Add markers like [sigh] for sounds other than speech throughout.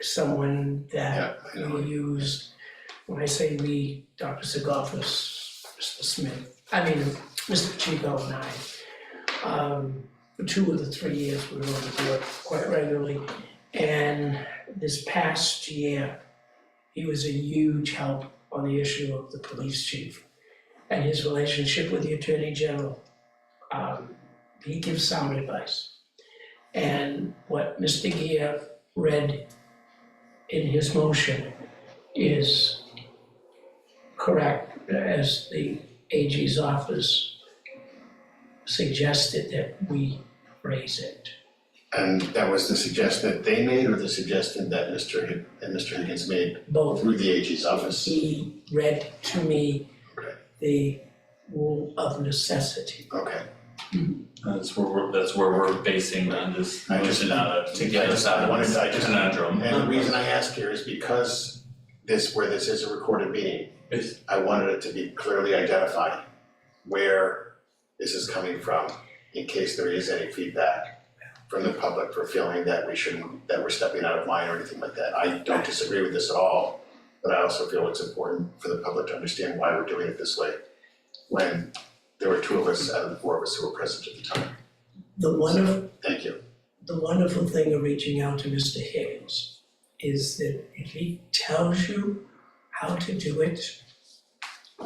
someone that Yeah, I know. we used, when I say we, Dr. Segoffis, Mr. Smith, I mean, Mr. Chico and I. Um, for two of the three years we were on the board quite regularly. And this past year, he was a huge help on the issue of the police chief and his relationship with the attorney general. Um, he gives sound advice. And what Mr. Gia read in his motion is correct as the AG's office suggested that we raise it. And that was the suggestion that they made or the suggestion that Mr. Hig- and Mr. Higgins made Both through the AG's office? he read to me Okay. the rule of necessity. Okay, That's where we're, that's where we're basing on this I just- motion out of, to I get just- us out I of wanted- this I just- conundrum. and the reason I ask here is because this, where this is a recorded meeting, It's- I wanted it to be clearly identified where this is coming from, in case there is any feedback from the public for feeling that we shouldn't, that we're stepping out of line or anything like that. I don't disagree with this at all, but I also feel it's important for the public to understand why we're doing it this way when there were two of us out of the four of us who were present at the time. The wonderful, Thank you. the wonderful thing of reaching out to Mr. Higgins is that if he tells you how to do it,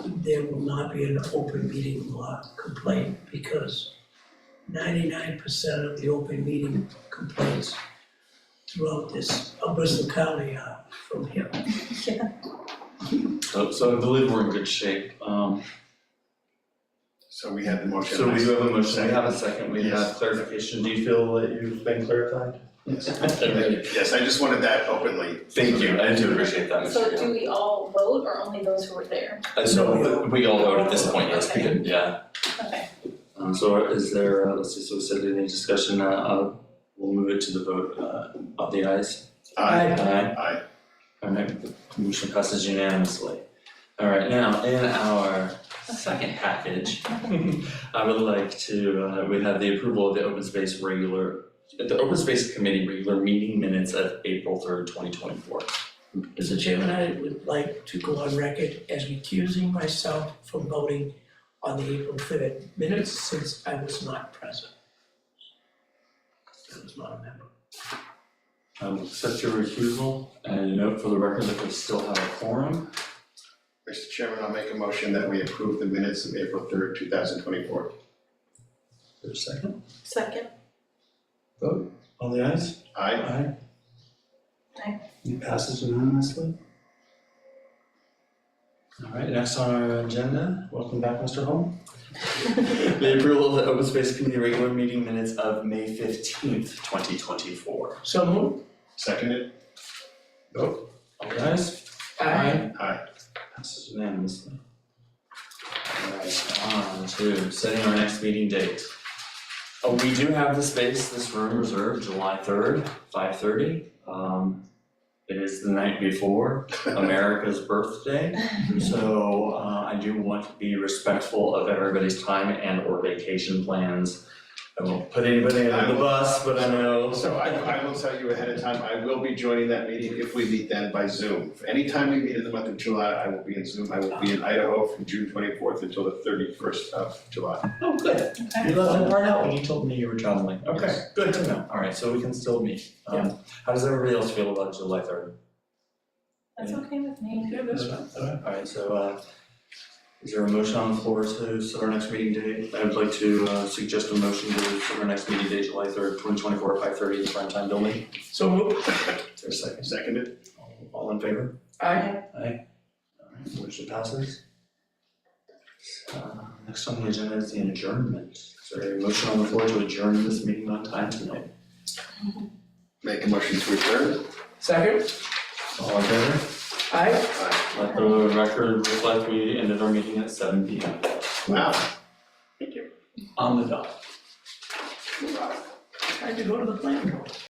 there will not be an open meeting law complaint because ninety-nine percent of the open meeting complaints throughout this, of Bristol County are from him. So, so I believe we're in good shape, um, So we had the motion. so we do have a motion, we have a second, we Yes. have clarification, do you feel that you've been clarified? [laughs] Yes, I just wanted that openly. Thank you, I do appreciate that, So Mr. do Gill. we all vote or only those who were there? Uh, so we all vote at this point, yes, we did, yeah. Okay, Um, so is there, uh, let's see, so we said any discussion, uh, uh, we'll move it to the vote, uh, of the ayes. Aye. Aye. Aye. Alright, motion passes unanimously. Alright, now, in our second package, [laughs] I would like to, uh, we have the approval of the open space regular, the open space committee regular meeting minutes of April third, twenty twenty-four. Mr. Chairman, I would like to go on record as recusing myself from voting on the April third minutes since I was not present. I was not a member. I will um, accept your recusal and note for the record that we still have a quorum. Mr. Chairman, I'll make a motion that we approve the minutes of April third, two thousand twenty-four. There's a second. second, Vote. On the ayes? Aye. Aye. Aye. It passes unanimously. All right, next on our agenda, welcome back, Mr. Holm. [laughs] The approval of the open space committee regular meeting minutes of May fifteenth, twenty twenty-four. So moved. Seconded? All ayes? Aye. Passes unanimously. All right, on to setting our next meeting date. Oh, we do have the space, this room reserved, July third, five thirty. Um, it is the night before America's birthday. So, uh, I do want to be respectful of everybody's time and or vacation plans. I won't put anybody on the bus, but I know. So I, I will tell you ahead of time, I will be joining that meeting if we meet then by Zoom. Anytime we meet in the month of July, I will be in Zoom. I will be in Idaho from June twenty-fourth until the thirty-first of July. Oh, good. You okay. left that part out when you told me you were traveling. Okay, good to know. Alright, so we can still meet. Um, how does everybody else feel about July third? That's okay with me. Alright, so, uh, is there a motion on the floor to set our next meeting date? I would like to, uh, suggest a motion to set our next meeting date, July third, twenty twenty-four, five thirty, in the prime time building. So moved. Is there a second? Seconded? All in favor? Aye. Alright, motion passes. Uh, next on the agenda is the adjournment. Is there a motion on the floor to adjourn this meeting on time tonight? Make a motion to adjourn? Second. All in favor? Aye. Aye. Let the record reflect we ended our meeting at seven P M Wow. on the dot. I had to go to the plant.